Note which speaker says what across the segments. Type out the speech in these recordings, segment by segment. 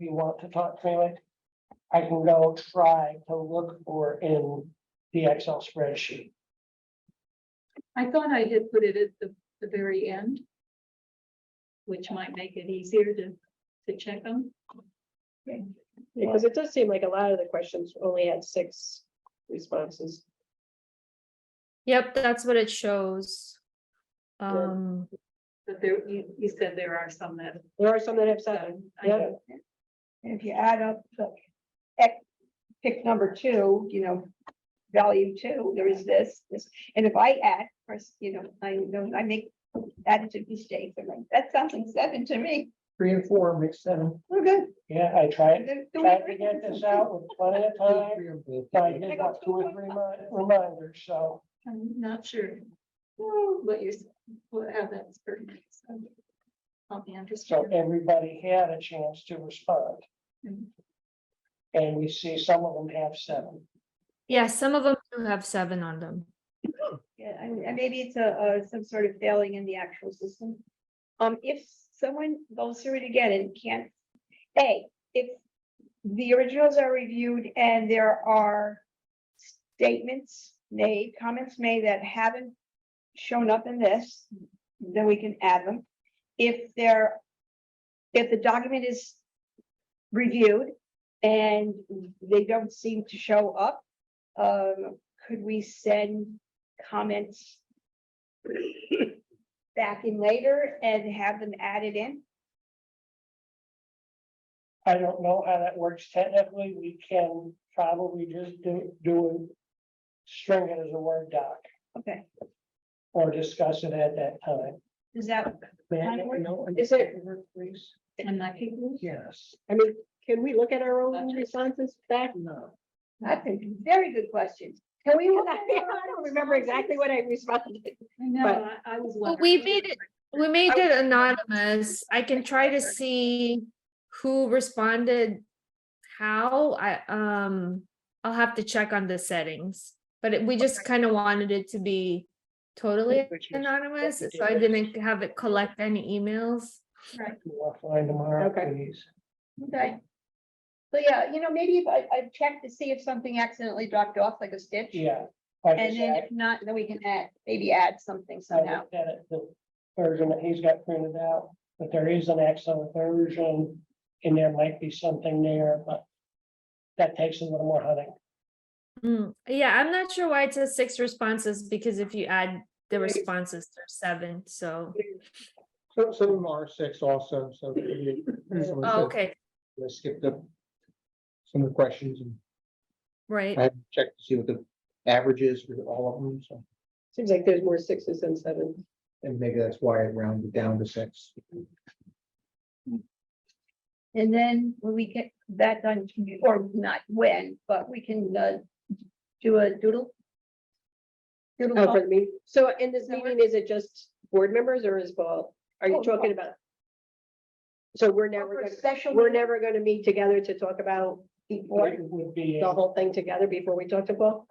Speaker 1: you want to talk through it. I can go try to look for in the Excel spreadsheet.
Speaker 2: I thought I had put it at the, the very end. Which might make it easier to, to check them.
Speaker 3: Because it does seem like a lot of the questions only had six responses.
Speaker 4: Yep, that's what it shows.
Speaker 3: Yeah.
Speaker 4: Um,
Speaker 2: But there, you, you said there are some that.
Speaker 3: There are some that have seven.
Speaker 2: I
Speaker 3: Yeah,
Speaker 2: don't-
Speaker 5: And if you add up the, ec- pick number two, you know, value two, there is this, this, and if I add, of course, you know, I know, I make additive mistakes, I'm like, that sounds like seven to me,
Speaker 1: Three and four makes seven.
Speaker 5: we're good.
Speaker 1: Yeah, I tried,
Speaker 5: They're doing
Speaker 1: tried to
Speaker 5: great.
Speaker 1: get this out with plenty of time. but I did not do it remind, reminder, so.
Speaker 2: I'm not sure. What you're, s- what, how that's pertinent. so I'll be
Speaker 1: So
Speaker 2: interested.
Speaker 1: everybody had a chance to respond.
Speaker 2: Mhm.
Speaker 1: And we see some of them have seven.
Speaker 4: yeah, some of them do have seven on them.
Speaker 5: Yeah, and and maybe it's a, uh, some sort of failing in the actual system. Um, if someone goes through it again and can't, A, if the originals are reviewed and there are statements made, comments made that haven't shown up in this, then we can add them. If there, if the document is reviewed and they don't seem to show up, um, could we send comments back in later and have them added in?
Speaker 1: I don't know how that works technically. We can probably just do, do it. String it as a Word doc
Speaker 5: Okay,
Speaker 1: or discuss it at that time.
Speaker 5: is that, Kind of work.
Speaker 3: Is it-
Speaker 1: Please,
Speaker 2: And my people.
Speaker 1: yes.
Speaker 3: I mean, can we look at our own responses back?
Speaker 1: No.
Speaker 5: that's a very good question.
Speaker 3: Can we? look at I don't remember exactly what I responded.
Speaker 2: I know,
Speaker 3: But-
Speaker 2: I, I was.
Speaker 4: But we
Speaker 2: wondering.
Speaker 4: made it, we made it anonymous. I can try to see who responded how. I, um, I'll have to check on the settings. But it- we just kind of wanted it to be totally
Speaker 1: Which is-
Speaker 4: anonymous,
Speaker 1: what we
Speaker 4: so I
Speaker 1: did.
Speaker 4: didn't have it collect any emails.
Speaker 1: We'll find tomorrow,
Speaker 3: Okay.
Speaker 1: please.
Speaker 5: Okay. So yeah, you know, maybe if I, I check to see if something accidentally dropped off like a stitch.
Speaker 1: Yeah. like I
Speaker 5: And then
Speaker 1: said,
Speaker 5: if not, then we can add, maybe add something
Speaker 1: I
Speaker 5: somehow.
Speaker 1: looked at it, the version that he's got printed out, but there is an Excel version and there might be something there, but that takes a little more hunting.
Speaker 4: Mm, yeah, I'm not sure why it says six responses, because if you add the
Speaker 3: Right.
Speaker 4: responses, there's seven, so.
Speaker 6: So some of them are six also, so. it could be easily
Speaker 4: Oh,
Speaker 6: said.
Speaker 4: okay,
Speaker 6: I skipped up some of the questions and
Speaker 4: right.
Speaker 6: I haven't checked to see what the average is for all of them, so.
Speaker 3: Seems like there's more sixes than sevens.
Speaker 6: And maybe that's why I rounded down to six.
Speaker 5: And then when we get that done, or not when, but we can, uh, do a doodle. Doodle.
Speaker 3: Oh,
Speaker 5: poll.
Speaker 3: for the meeting. So in this
Speaker 5: So
Speaker 3: meeting, is it just board members or is Paul, are
Speaker 5: Oh,
Speaker 3: you talking about? So we're never,
Speaker 5: Or for
Speaker 3: gonna-
Speaker 5: Special.
Speaker 3: we're never gonna meet together to talk about
Speaker 1: What
Speaker 3: before,
Speaker 1: would be,
Speaker 3: the whole thing together before we talk to Paul?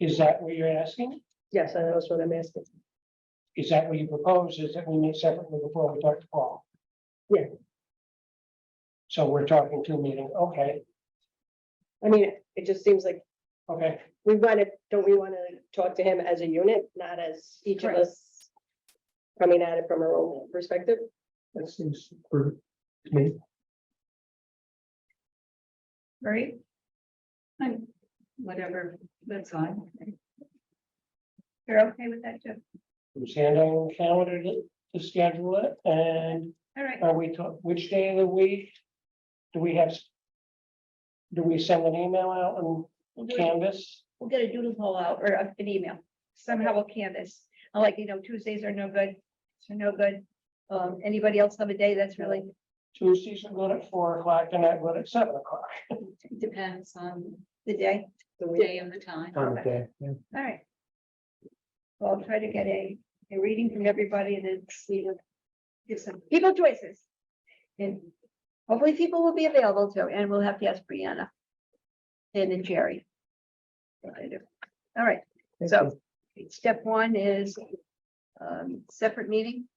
Speaker 1: is that what you're asking?
Speaker 3: Yes, I know, that's what I'm asking.
Speaker 1: Is that what you propose? Is that we meet separately before we talk to Paul?
Speaker 3: Yeah.
Speaker 1: So we're talking two meetings. Okay,
Speaker 3: I mean, it just seems like
Speaker 1: okay.
Speaker 3: we wanna, don't we wanna talk to him as a unit, not as each of
Speaker 5: Correct.
Speaker 3: us coming at it from our own perspective?
Speaker 6: That seems for me.
Speaker 5: Right?
Speaker 2: I'm- Whatever, that's fine.
Speaker 5: You're okay with that, Joe?
Speaker 1: Who's handling the calendar to, to schedule it? And
Speaker 5: All right.
Speaker 1: are we, talk- which day of the week? Do we have? s- Do we send an email out on
Speaker 5: We'll do it.
Speaker 1: Canvas?
Speaker 5: we'll get a doodle poll out or a- an email. Somehow we'll canvas. I like, you know, Tuesdays are no good. They're no good. Um, anybody else have a day that's really,
Speaker 1: Tuesdays are good at four o'clock and not good at seven o'clock.
Speaker 2: Depends on
Speaker 5: the day?
Speaker 3: The
Speaker 2: the
Speaker 3: week.
Speaker 2: day and the time.
Speaker 6: Time of day, yeah.
Speaker 5: All right. Well, I'll try to get a, a reading from everybody and then see them. Give some people choices. And hopefully people will be available too, and we'll have to ask Brianna. And then Jerry. What they do. All right,
Speaker 6: Thank
Speaker 5: so step one is um, separate meeting.